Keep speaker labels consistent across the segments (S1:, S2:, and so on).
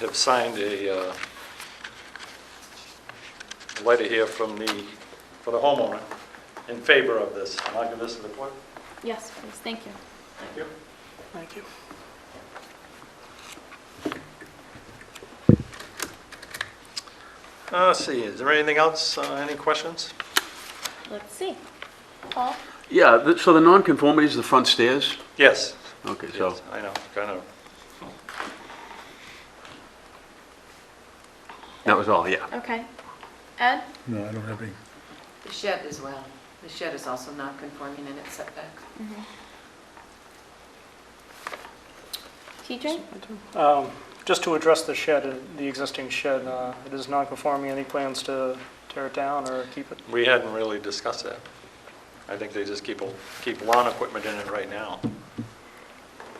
S1: have signed a uh, letter here from the, for the homeowner in favor of this. Am I give this to the clerk?
S2: Yes, please, thank you.
S1: Thank you.
S3: Thank you.
S1: Uh, Let's see, is there anything else, Uh, any questions?
S2: Let's see. Paul?
S4: Yeah, th- so the nonconformity is the front stairs?
S1: Yes.
S4: Okay, so,
S1: Yes, I know, kind of.
S4: that was all, yeah.
S2: Okay. Ed?
S5: No, I don't have any.
S6: The shed as well. The shed is also not conforming in its setback.
S2: Mm-hmm. TJ?
S3: Um, Just to address the shed, uh, the existing shed, uh, it is non-conforming. Any plans to tear it down or keep it?
S1: We hadn't really discussed that. I think they just keep, keep lawn equipment in it right now.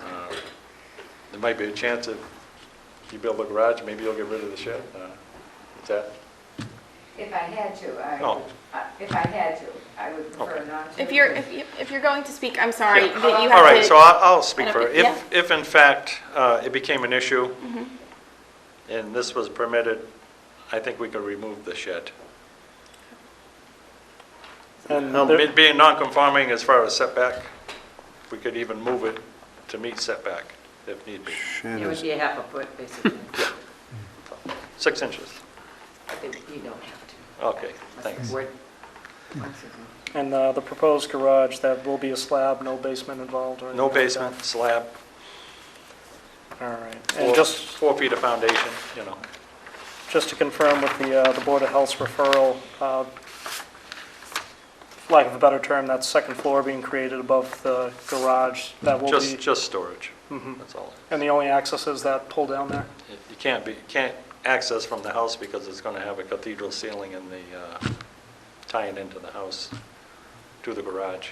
S1: Uh, There might be a chance if you build a garage, maybe you'll get rid of the shed. Uh, Is that, Oh,
S7: If I had to, I
S1: No.
S7: would, I- if I had to, I would prefer
S1: Okay.
S7: not to.
S2: If you're, if you, if you're going to speak, I'm sorry
S1: Yeah.
S2: that you
S1: all right,
S2: have
S1: so
S2: to.
S1: I- I'll speak
S2: I
S1: for,
S2: don't-
S1: it.
S2: yeah. Mm-hmm.
S1: if, if in fact uh, it became an issue and this was permitted, I think we could remove the shed.
S3: And
S1: It
S3: there-
S1: Being non-conforming as far as setback, we could even move it to meet setback if need be,
S6: It would be a half a foot, basically,
S1: six inches.
S6: but they- you don't have to.
S1: Okay,
S6: Unless
S1: thanks.
S6: the board wants to.
S3: and uh, the proposed garage, that will be a slab, no basement involved or anything?
S1: No
S3: like that?
S1: basement, slab,
S3: All right.
S1: four,
S3: And just,
S1: four feet of foundation, you know.
S3: just to confirm with the, uh, the Board of Health's referral, uh, lack of a better term, that second floor being created above the garage, that will
S1: Just,
S3: be,
S1: just storage,
S3: Mhm.
S1: that's all.
S3: and the only access is that pull down there?
S1: You can't be, you can't access from the house because it's going to have a cathedral ceiling and the, uh, tying into the house to the garage.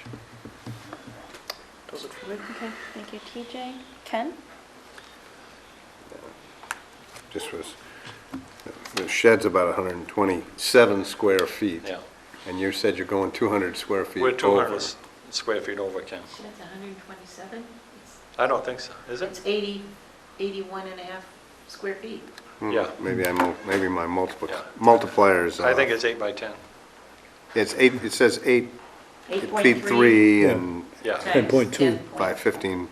S3: Does it for me?
S2: Okay, thank you, TJ. Ken?
S8: Just was, the shed's about 127 square feet.
S1: Yeah,
S8: And you said you're going 200 square feet
S1: we're
S8: over.
S1: 200 square feet over, Ken.
S6: Shed's 127? It's-
S1: I don't think so, is it?
S6: It's 80, 81 and a half square feet.
S8: Hmm,
S1: Yeah.
S8: Maybe I, mul- maybe my multiple,
S1: Yeah.
S8: multiplier is
S1: I think
S8: off.
S1: it's eight by 10,
S8: It's eight, it says eight feet
S6: 8.3
S8: three and
S1: yeah,
S6: times
S5: 10.2.
S6: 10
S8: by 15.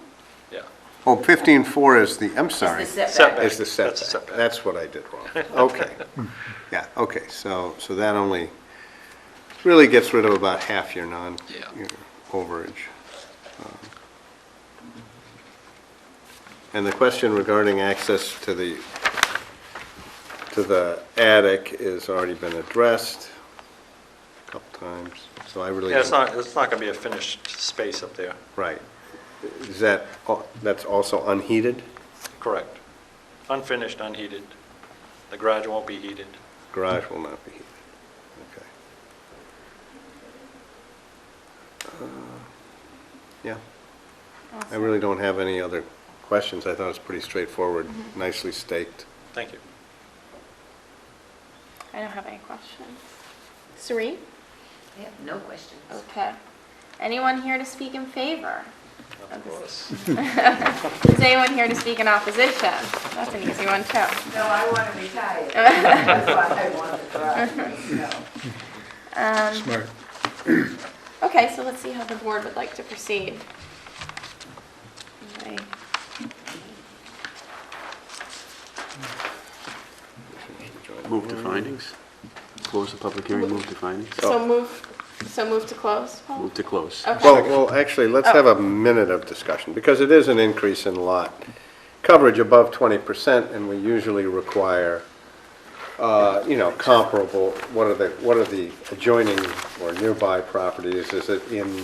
S1: yeah.
S8: Oh, 15.4 is the, I'm sorry.
S6: Is the setback.
S1: Setback.
S8: Is the
S1: That's the
S8: setback.
S1: setback.
S8: That's what I did wrong. Okay. Yeah, okay, so, so that only, really gets rid of about half your non,
S1: Yeah.
S8: your overage. Um, And the question regarding access to the, to the attic has already been addressed a couple times, so I really.
S1: Yeah, it's
S8: don't-
S1: not, it's not going to be a finished space up there,
S8: Right. Is that, al- that's also unheated?
S1: correct. Unfinished, unheated. The garage won't be heated.
S8: Garage will not be heated. Okay. Uh, Yeah, I really don't have any other questions. I thought it was pretty straightforward, nicely staked.
S1: Thank you.
S2: I don't have any questions. Sri?
S6: I have no questions.
S2: Okay. Anyone here to speak in favor?
S1: Of course.
S2: Is anyone here to speak in opposition? That's an easy one, too.
S7: No, I want to retire. That's why I want the garage, no.
S2: Um,
S5: Smart.
S2: Okay, so let's see how the board would like to proceed.
S4: Oh.
S2: Okay.
S4: Move to findings. Close the public hearing, move to findings.
S2: So move, so move to close, Paul?
S4: Move to close.
S2: Okay.
S8: Well, well, actually, let's have a minute of discussion, because it is an increase in lot coverage above 20%, and we usually require, uh, you know, comparable, what are the, what are the adjoining or nearby properties? Is it in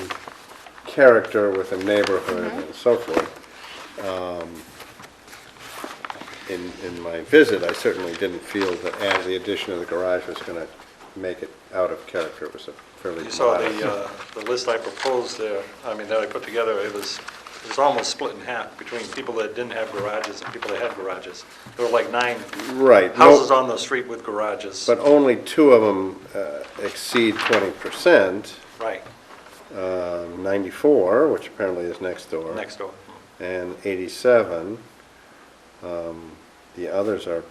S8: character with the neighborhood and so forth? Um, In, in my visit, I certainly didn't feel that add- the addition of the garage was going to make it out of character. It was a fairly
S1: You
S8: modest...
S1: saw the, uh, the list I proposed there, I mean, that I put together, it was, it was almost split in half between people that didn't have garages and people that had garages. There were like nine
S8: Right. no-
S1: houses on the street with garages.
S8: But only two of them uh, exceed 20%,
S1: Right,
S8: um, 94, which apparently is next door.
S1: next door.
S8: And 87. Um, The others are